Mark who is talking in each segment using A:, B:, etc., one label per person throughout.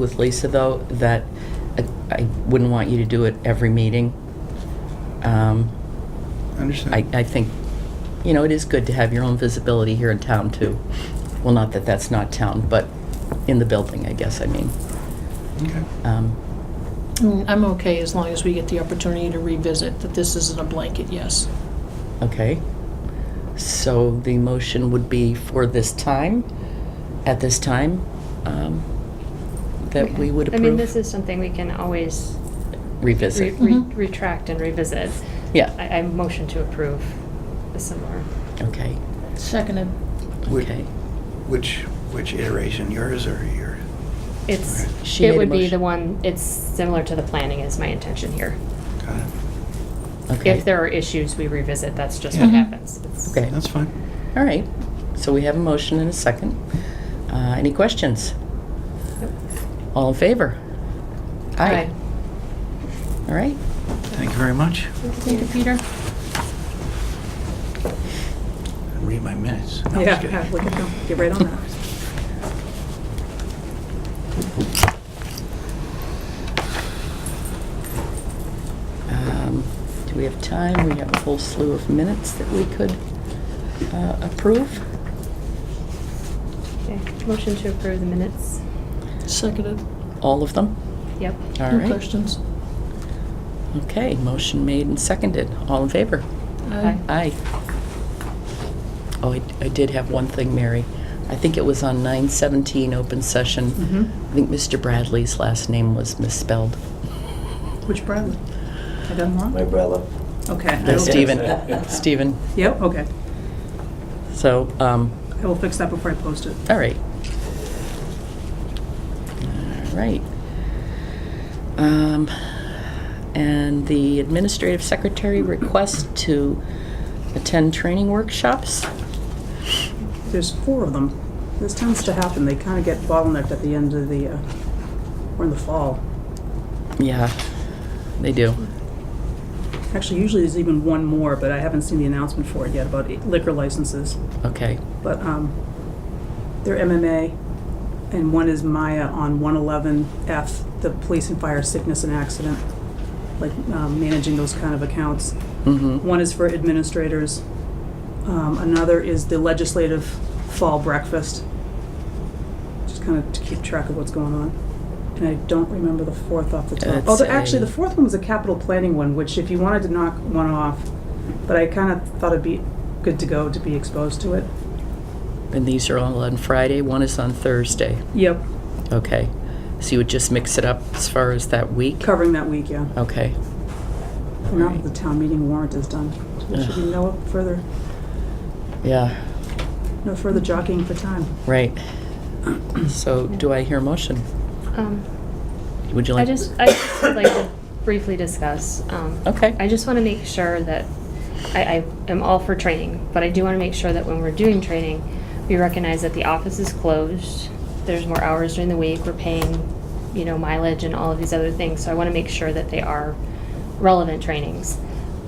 A: with Lisa, though, that I- I wouldn't want you to do it every meeting. Um, I,
B: Understand.
A: I think, you know, it is good to have your own visibility here in town, too. Well, not that that's not town, but in the building, I guess, I mean.
B: Okay.
A: Um,
C: Mm, I'm okay as long as we get the opportunity to revisit that this isn't a blanket yes.
A: Okay. So the motion would be for this time, at this time, um, that we would
D: I mean, this
A: approve,
D: is something we can always re-
A: revisit.
D: re-
C: Mhm.
D: retract and revisit.
A: Yeah,
D: I, I motion to approve the similar.
A: okay,
C: Seconded.
B: Would-
A: okay.
B: Which, which iteration, yours or your?
D: It's,
B: Okay.
A: She made
D: it
A: a
D: would be the
A: motion.
D: one, it's similar to the planning is my intention here.
B: Got it.
A: Okay.
D: If there are issues, we revisit, that's just what
C: Yeah.
D: happens. It's-
A: Okay.
B: That's fine.
A: All right, so we have a motion and a second. Uh, Any questions? All in favor?
D: Aye.
A: All right,
B: Thank you very much.
C: Thank you, Peter.
B: Read my minutes. No, I'm just kidding.
E: Yeah, look at them, get right on that.
A: Um, do we have time? We have a whole slew of minutes that we could uh, approve.
D: Okay. Motion to approve the minutes.
C: Seconded.
A: All of them?
D: Yep.
A: All
C: No
A: right,
C: questions?
A: okay, motion made and seconded. All in favor?
C: Aye.
A: Aye. Oh, I I did have one thing, Mary. I think it was on 917 open session.
E: Mm-hmm.
A: I think Mr. Bradley's last name was misspelled.
E: Which Bradley? I done
F: My
E: one?
F: brother.
E: Okay. I
A: No,
E: will
A: Stephen,
E: fix that.
A: Stephen.
E: Yep, okay.
A: So, um,
E: I will fix that before I post it.
A: all right. All right. Um, and the administrative secretary requests to attend training workshops.
E: There's four of them. This tends to happen, they kind of get bottlenecked at the end of the, uh, or in the fall.
A: Yeah, they do.
E: Actually, usually there's even one more, but I haven't seen the announcement for it yet about liquor licenses.
A: Okay,
E: But um, they're MMA, and one is Maya on 111F, the police and fire sickness and accident, like um, managing those kind of accounts.
A: mm-hmm,
E: One is for administrators. Um, Another is the legislative fall breakfast, just kind of to keep track of what's going on. And I don't remember the fourth off the top.
A: That's
E: Although, actually,
A: a-
E: the fourth one was a capital planning one, which if you wanted to knock one off, but I kind of thought it'd be good to go to be exposed to it.
A: and these are all on Friday, one is on Thursday.
E: Yep,
A: Okay, so you would just mix it up as far as that week?
E: covering that week, yeah.
A: Okay,
E: And Now that the town meeting warrant is done, so there should be no further,
A: yeah,
E: no further jockeying for time.
A: right. So do I hear a motion?
D: Um,
A: Would you
D: I
A: like?
D: just, I just would like to briefly discuss. um,
A: Okay.
D: I just want to make sure that, I, I am all for training, but I do want to make sure that when we're doing training, we recognize that the office is closed, there's more hours during the week, we're paying, you know, mileage and all of these other things, so I want to make sure that they are relevant trainings.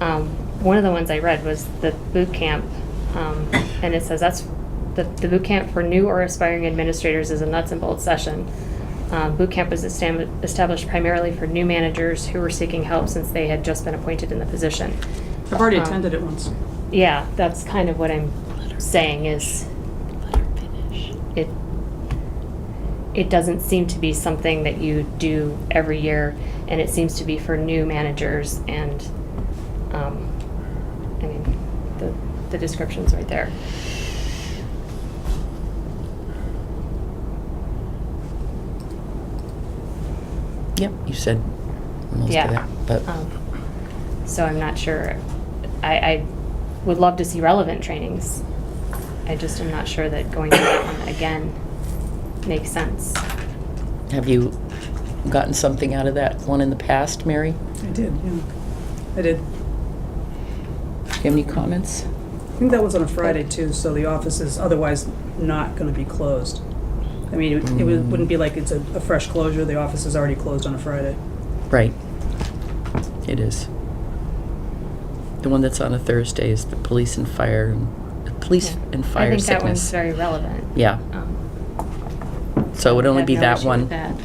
D: Um, One of the ones I read was the boot camp, um, and it says that's, the, the boot camp for new or aspiring administrators is a nuts and bolts session. Um, Boot camp was estam- established primarily for new managers who were seeking help since they had just been appointed in the position.
E: I've already
D: Um,
E: attended it once.
D: Yeah, that's kind of what I'm saying is it it doesn't seem to be something that you do every year, and it seems to be for new managers and um, I mean the the description's right there.
A: Yep, you said most of
D: Yeah.
A: that, but,
D: Um, So I'm not sure, I, I would love to see relevant trainings. I just am not sure that going to that one again makes sense.
A: have you gotten something out of that one in the past, Mary?
E: I did, yeah. I did.
A: Do you have any comments?
E: I think that was on a Friday too, so the office is otherwise not gonna be closed. I mean, it would- it would- wouldn't be like it's a, a fresh closure, the office is already closed on a Friday.
A: Right. It is. The one that's on a Thursday is the police and fire, and- the police
D: Yeah.
A: and fire
D: I think that one's
A: sickness.
D: very relevant.
A: Yeah,
D: Um,
A: so it would only
D: have
A: be
D: no
A: that
D: issue
A: one.
D: with that.